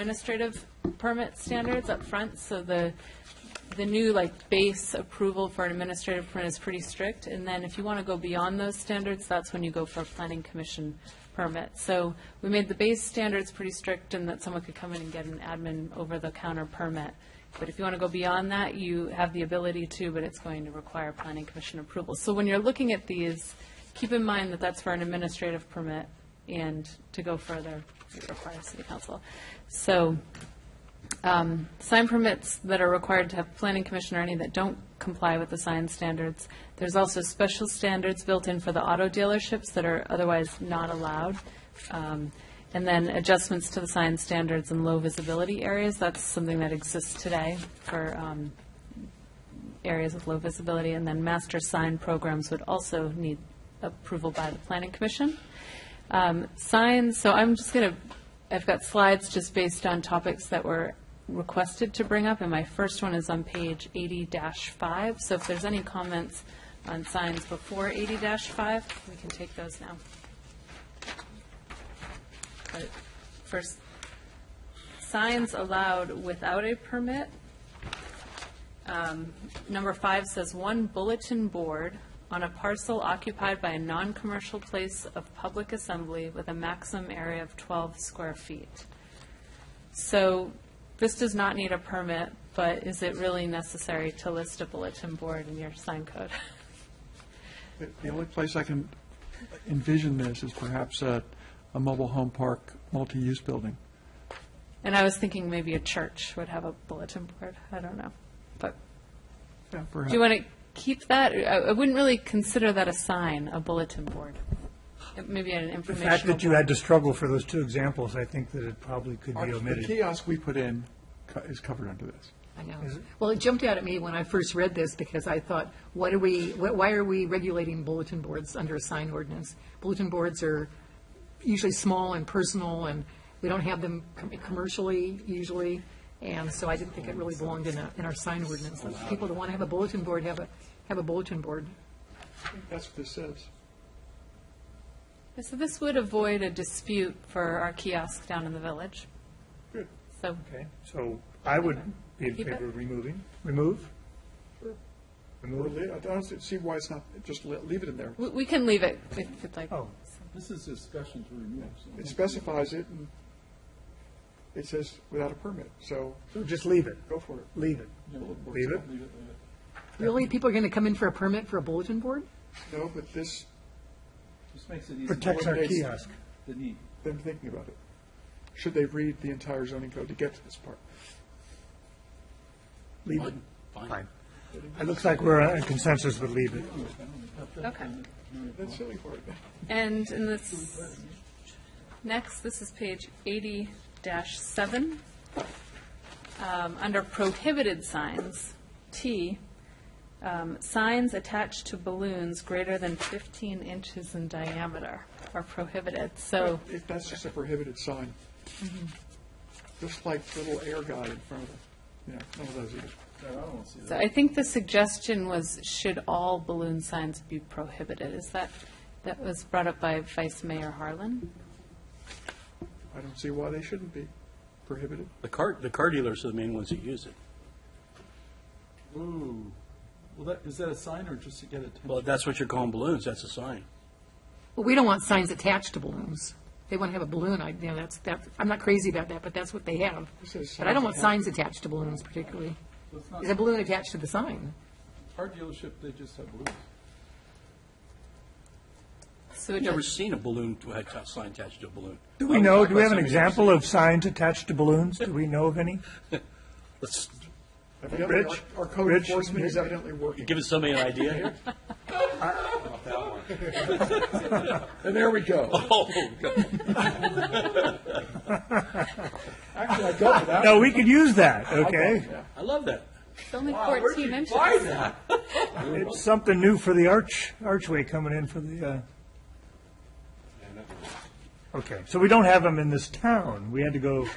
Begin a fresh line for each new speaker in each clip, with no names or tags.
administrative permit standards up front, so the, the new, like, base approval for an administrative permit is pretty strict, and then if you want to go beyond those standards, that's when you go for a planning commission permit. So we made the base standards pretty strict, and that someone could come in and get an admin over-the-counter permit. But if you want to go beyond that, you have the ability to, but it's going to require planning commission approval. So when you're looking at these, keep in mind that that's for an administrative permit, and to go further, it requires city council. So um, sign permits that are required to have planning commission or any that don't comply with the sign standards. There's also special standards built in for the auto dealerships that are otherwise not allowed. Um, And then adjustments to the sign standards in low visibility areas, that's something that exists today for um, areas with low visibility. And then master sign programs would also need approval by the planning commission. Um, Signs, so I'm just going to, I've got slides just based on topics that were requested to bring up, and my first one is on page 80-5. So if there's any comments on signs before 80-5, we can take those now. But First, signs allowed without a permit. Um, Number five says one bulletin board on a parcel occupied by a non-commercial place of public assembly with a maximum area of 12 square feet. So this does not need a permit, but is it really necessary to list a bulletin board in your sign code?
The- The only place I can envision this is perhaps a, a mobile home park, multi-use building.
And I was thinking maybe a church would have a bulletin board, I don't know. But
Yeah,
do
perhaps.
you want to keep that? I I wouldn't really consider that a sign, a bulletin board. Maybe an
The
informational
fact that you
board.
had to struggle for those two examples, I think that it probably could
Our-
be
The
omitted.
kiosk we put in co- is covered under this.
I know. Well, it jumped out at me when I first read this because I thought, what are we, wh- why are we regulating bulletin boards under a sign ordinance? Bulletin boards are usually small and personal, and we don't have them com- commercially usually, and so I didn't think it really belonged in a, in our sign ordinance. People that want to have a bulletin board, have a, have a bulletin board.
That's what this says.
So this would avoid a dispute for our kiosk down in the village.
Good.
So,
Okay, so I would be in
Keep it.
favor of removing. Remove?
Or
Remove?
le- I don't see why it's not, just le- leave it in there.
we, we can leave it if you'd like.
Oh,
This is discussion to remove. so-
It specifies it, and it says without a permit, so
so just leave it,
go for it.
leave it.
Bulletin boards.
Leave it?
Leave it there.
Really, people are going to come in for a permit for a bulletin board?
No, but this,
Just makes it easy.
Protects our
Eliminates-
kiosk.
The need.
them thinking about it. Should they read the entire zoning code to get to this part?
Leave it. Fine. It looks like we're in consensus with leave it.
Okay.
That's silly for it.
And in this, next, this is page eighty seven. Um, under prohibited signs, T, um, signs attached to balloons greater than fifteen inches in diameter are prohibited. So,
If that's just a prohibited sign. Just like the little air guy in front of it, you know, none of those either.
No, I don't want to see
so
that.
I think the suggestion was, should all balloon signs be prohibited? Is that, that was brought up by Vice Mayor Harlan?
I don't see why they shouldn't be prohibited.
The car, the car dealers are the main ones that use it.
Ooh. Well, that, is that a sign or just to get attention?
Well, that's what you're calling balloons, that's a sign.
Well, we don't want signs attached to balloons. They want to have a balloon, I, you know, that's, that, I'm not crazy about that, but that's what they have.
says
But I don't want
signs
signs attached to balloons particularly.
It's not,
Is a balloon attached to the sign?
car dealership, they just have balloons.
So
I've
it
never seen a balloon to have a sign attached to a balloon.
Do we know, do we have an example of signs attached to balloons? Do we know of any?
Let's
Evidently, our-
Rich?
Our code
Rich?
enforcement is evidently working.
give somebody an idea here.
And there we go.
Oh, God.
Actually, I go for that.
No, we could use that, okay?
I love that.
It's only fourteen inches.
It's something new for the arch, archway coming in for the, uh... Okay, so we don't have them in this town. We had to go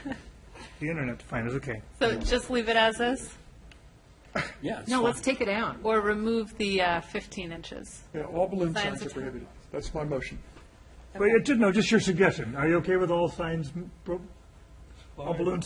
the internet to find it, okay.
So just leave it as is?
Yeah, it's
No,
fine.
let's take it out.
Or remove the uh, 15 inches.
Yeah, all balloon
Signs
signs are
attached.
prohibited. That's my motion.
Wait, uh, ju- no, just your suggestion. Are you okay with all signs m- pro- all balloons